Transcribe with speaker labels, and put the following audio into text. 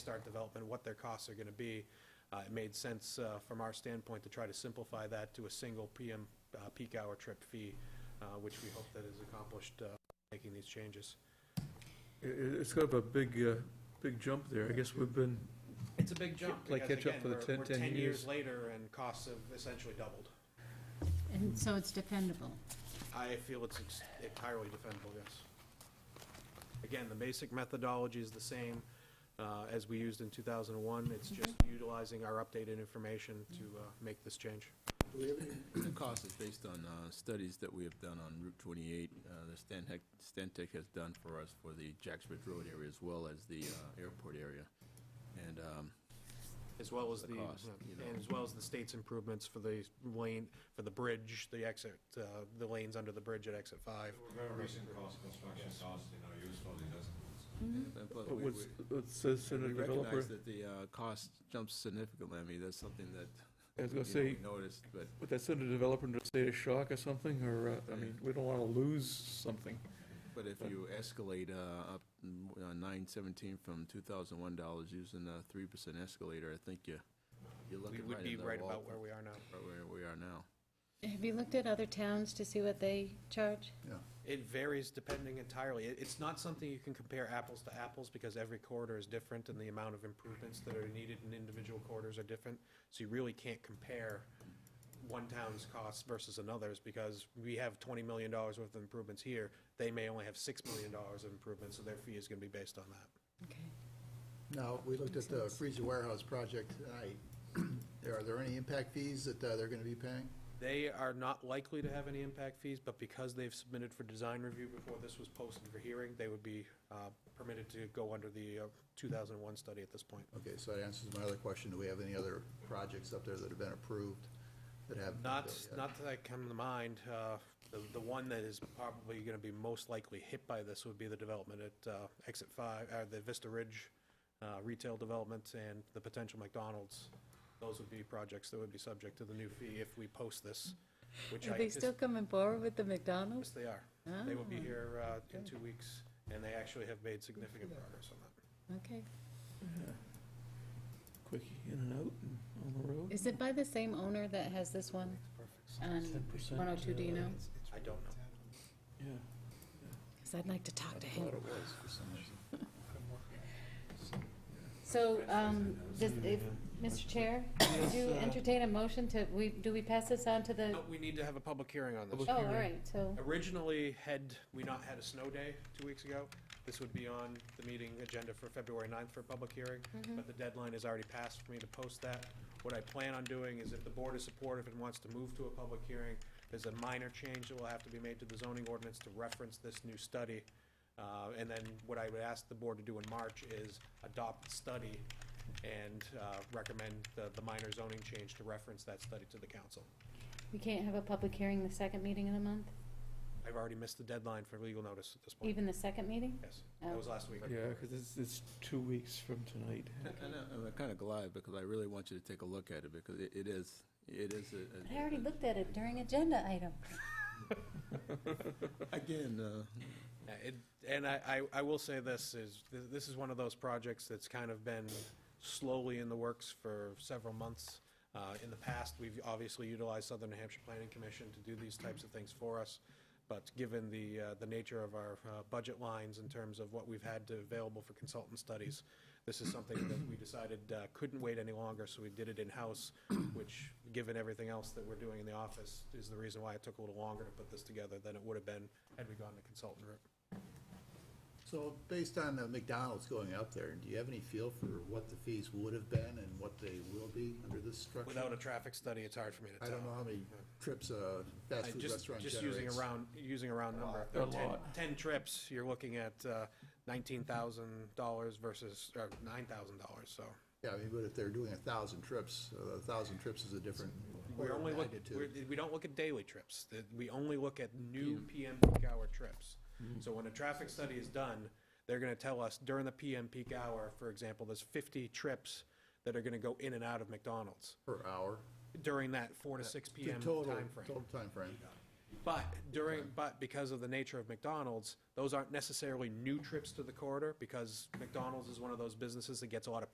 Speaker 1: start development, what their costs are going to be. Uh, It made sense uh, from our standpoint to try to simplify that to a single PM uh, peak hour trip fee, uh, which we hope that is accomplished uh, making these changes.
Speaker 2: It, it's got up a big, uh, big jump there. I guess we've been,
Speaker 1: It's a big jump
Speaker 2: Like
Speaker 1: because,
Speaker 2: catch up
Speaker 1: again,
Speaker 2: for the
Speaker 1: we're
Speaker 2: 10
Speaker 1: we're
Speaker 2: 10
Speaker 1: 10 years
Speaker 2: years.
Speaker 1: later and costs have essentially doubled.
Speaker 3: And so it's dependable.
Speaker 1: I feel it's ex- entirely defendable, yes. Again, the basic methodology is the same uh, as we used in 2001. It's just utilizing our updated information to uh, make this change.
Speaker 4: The cost is based on uh, studies that we have done on Route 28, uh, that Stantec, Stantec has done for us for the Jacks Ridge Road area as well as the uh, airport area. And um,
Speaker 1: As well as
Speaker 4: The
Speaker 1: the,
Speaker 4: cost, you know.
Speaker 1: and as well as the state's improvements for the lane, for the bridge, the exit, uh, the lanes under the bridge at exit five.
Speaker 5: Very recent cost, construction costs, you know, used for the
Speaker 4: but- but
Speaker 2: but
Speaker 4: Oh, we-
Speaker 2: what's,
Speaker 4: we-
Speaker 2: it says in a
Speaker 4: we recognize
Speaker 2: developer,
Speaker 4: that the uh, cost jumps significantly. I mean, that's something that.
Speaker 2: I was gonna
Speaker 4: you know, we
Speaker 2: say-
Speaker 4: Noticed, but
Speaker 2: would that send a developer into a state of shock or something, or, uh, I mean, we don't wanna lose something.
Speaker 4: But if you escalate uh, up nine seventeen from two thousand one dollars using a three percent escalator, I think you, you're
Speaker 1: We
Speaker 4: looking right
Speaker 1: would
Speaker 4: in
Speaker 1: be
Speaker 4: the
Speaker 1: right
Speaker 4: wall
Speaker 1: about
Speaker 4: for-
Speaker 1: where we are now.
Speaker 4: right Where we are now.
Speaker 3: Have you looked at other towns to see what they charge?
Speaker 1: It varies depending entirely. It- It's not something you can compare apples to apples because every corridor is different and the amount of improvements that are needed in individual corridors are different. So you really can't compare one town's costs versus another's because we have twenty million dollars worth of improvements here. They may only have six million dollars of improvements, so their fee is gonna be based on that.
Speaker 3: Okay.
Speaker 6: Now, we looked at the freezer warehouse project tonight. There- Are there any impact fees that uh, they're going to be paying?
Speaker 1: They are not likely to have any impact fees, but because they've submitted for design review before this was posted for hearing, they would be uh, permitted to go under the uh, two thousand and one study at this point.
Speaker 6: Okay, so that answers my other question. Do we have any other projects up there that have been approved that have?
Speaker 1: Not, not that I come to mind. Uh, The, the one that is probably going to be most likely hit by this would be the development at uh, Exit 5, uh, the Vista Ridge uh, retail development and the potential McDonald's. Those would be projects that would be subject to the new fee if we post this, which I.
Speaker 3: Are they still
Speaker 1: anticipate-
Speaker 3: coming forward with the
Speaker 1: Yes,
Speaker 3: McDonald's?
Speaker 1: they are. They will be
Speaker 3: Oh.
Speaker 1: here uh, in two weeks, and they actually have made significant progress on that.
Speaker 3: Oh, Okay.
Speaker 2: Quick in and out and on the road.
Speaker 3: Is it by the same owner that has this one on
Speaker 2: 10%,
Speaker 3: 102, do you
Speaker 6: uh,
Speaker 3: know?
Speaker 1: I don't know.
Speaker 2: Yeah.
Speaker 3: Because I'd like to talk to him.
Speaker 6: Thought it was for some reason.
Speaker 3: So, um, does, if, Mr. Chair, would you
Speaker 6: uh,
Speaker 3: entertain a motion to, we, do we pass this on to the,
Speaker 1: But we need to have a public hearing on this.
Speaker 3: oh, all right, so,
Speaker 1: Originally, had we not had a snow day two weeks ago, this would be on the meeting agenda for February 9th for a public hearing, but the deadline is already passed for me to post that. What I plan on doing is if the board is supportive and wants to move to a public hearing, there's a minor change that will have to be made to the zoning ordinance to reference this new study. Uh, And then what I would ask the board to do in March is adopt the study and uh, recommend the the minor zoning change to reference that study to the council.
Speaker 3: we can't have a public hearing the second meeting of the month?
Speaker 1: I've already missed the deadline for legal notice at this point.
Speaker 3: Even the second meeting?
Speaker 1: Yes, that was last week.
Speaker 2: Yeah, because it's, it's two weeks from tonight.
Speaker 4: And I- I'm kind of glad because I really want you to take a look at it because it it is, it is. a- a-
Speaker 3: I already looked at it during agenda item.
Speaker 4: Again, uh,
Speaker 1: Yeah, it- And I, I I will say this, is, th- this is one of those projects that's kind of been slowly in the works for several months. Uh, In the past, we've obviously utilized Southern New Hampshire Planning Commission to do these types of things for us, but given the, uh, the nature of our uh, budget lines in terms of what we've had to available for consultant studies, this is something that we decided uh, couldn't wait any longer, so we did it in-house, which, given everything else that we're doing in the office, is the reason why it took a little longer to put this together than it would have been had we gone the consultant route.
Speaker 6: So based on the McDonald's going up there, do you have any feel for what the fees would have been and what they will be under this structure?
Speaker 1: Without a traffic study, it's hard for me to tell.
Speaker 6: I don't know how many trips a
Speaker 1: I
Speaker 6: fast food
Speaker 1: just-
Speaker 6: restaurant generates.
Speaker 1: Just using a round, using a round number.
Speaker 2: A
Speaker 1: Ten-
Speaker 2: lot.
Speaker 1: Ten trips, you're looking at uh, $19,000 versus, or $9,000, so.
Speaker 6: Yeah, I mean, but if they're doing a thousand trips, a thousand trips is a different.
Speaker 1: We're only look,
Speaker 6: magnitude.
Speaker 1: we're- we don't look at daily trips. That- We only look at new PM peak hour trips.
Speaker 6: Mm-hmm.
Speaker 1: So when a traffic study is done, they're gonna tell us during the PM peak hour, for example, there's 50 trips that are gonna go in and out of McDonald's
Speaker 6: Per hour.
Speaker 1: during that 4 to 6
Speaker 6: Total
Speaker 1: PM timeframe.
Speaker 6: Total timeframe.
Speaker 1: But during, but because of the nature of McDonald's, those aren't necessarily new trips to the corridor, because McDonald's is one of those businesses that gets a lot of